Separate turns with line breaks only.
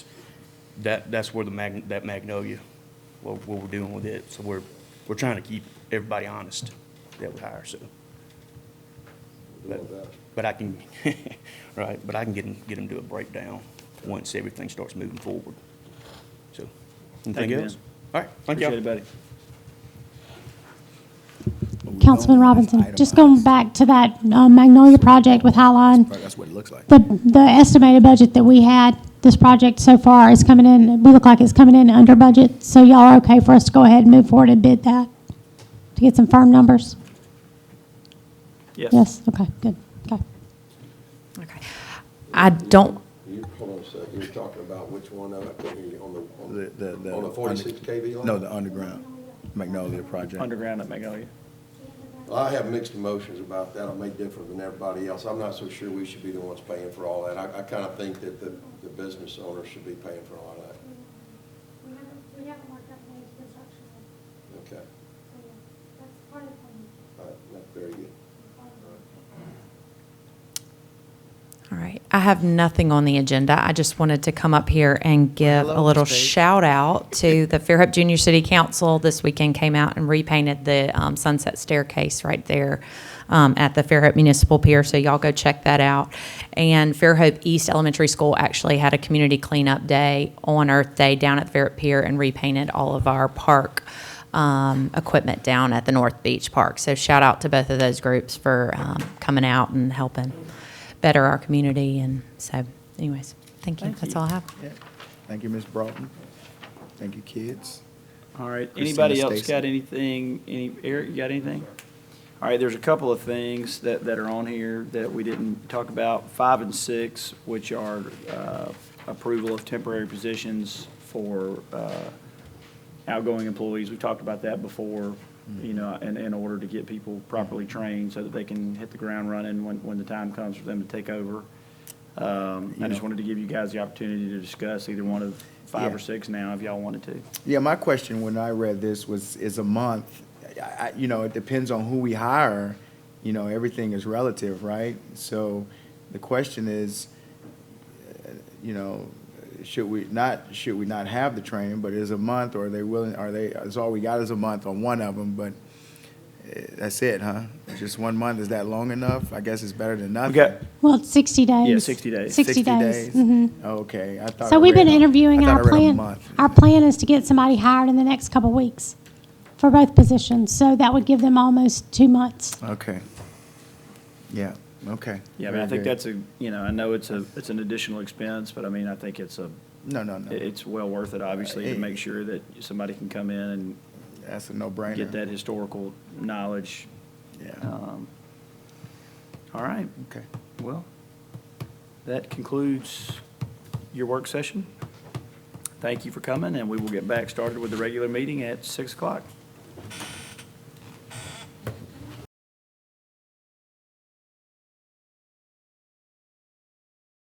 that, that's where the mag, that magnolia, what, what we're doing with it. So we're, we're trying to keep everybody honest that we hire, so.
We'll do all that.
But I can, right, but I can get them, get them to a breakdown once everything starts moving forward. So, anything
you, man.
else? All right, thank you
Appreciate it, buddy.
Councilman Robinson, just going back to that uh, Magnolia project with Highline,
That's what it looks like.
the, the estimated budget that we had, this project so far is coming in, we look like it's coming in under budget, so y'all are okay for us to go ahead and move forward and bid that, to get some firm numbers? Yes, okay, good, okay.
Okay. I don't,
You, hold on a second, you're talking about which one, I couldn't hear you, on the, on
The- the- the-
the, on the forty-six KV line?
No, the underground Magnolia project.
Underground at Magnolia.
Well, I have mixed emotions about that, I may differ than everybody else, I'm not so sure we should be the ones paying for all that. I, I kinda think that the, the business owner should be paying for all that,
We haven't, we haven't worked out any construction yet,
okay?
so yeah, that's part of the plan.
All right, that's very good.
all right, I have nothing on the agenda. I just wanted to come up here and give a little shout out to the Fairhope Junior City Council. This weekend came out and repainted the um, sunset staircase right there um, at the Fairhope Municipal Pier, so y'all go check that out. And Fairhope East Elementary School actually had a community cleanup day on Earth Day down at the Fairhope Pier and repainted all of our park um, equipment down at the North Beach Park. So shout out to both of those groups for um, coming out and helping better our community. And so, anyways, thank you. That's all I have.
Yeah. Thank you, Ms. Broughton. Thank you, kids.
All right,
Christina
anybody else
Stacy.
got anything, any, Eric, you got anything? All right, there's a couple of things that, that are on here that we didn't talk about, five and six, which are uh, approval of temporary positions for uh, outgoing employees. We've talked about that before,
Mm-hmm.
you know, in, in order to get people properly trained so that they can hit the ground running when, when the time comes for them to take over. Um, I just wanted to give you guys the opportunity to discuss either one of five
Yeah.
or six now, if y'all wanted to.
Yeah, my question when I read this was, is a month, I, I- you know, it depends on who we hire. You know, everything is relative, right? So the question is, uh, you know, should we not, should we not have the training? But is a month, or are they willing, are they, is all we got is a month on one of them, but eh, that's it, huh? Just one month, is that long enough? I guess it's better than nothing.
got-
Well, it's 60 days.
60 days.
60 days. mhm.
Okay, I thought. I
So we've been
read a-
interviewing
I thought
our
I read a
plan.
month.
Our plan is to get somebody hired in the next couple of weeks for both positions, so that would give them almost two months.
Okay. Yeah, okay.
Yeah, I mean, I think
Very good.
that's a, you know, I know it's a, it's an additional expense, but I mean, I think it's a,
No, no, no.
it's well worth it, obviously, to make sure that somebody can come in and
That's a no-brainer.
get that historical knowledge.
Yeah,
Um, All right,
okay.
well, that concludes your work session. Thank you for coming, and we will get back started with the regular meeting at 6 o'clock.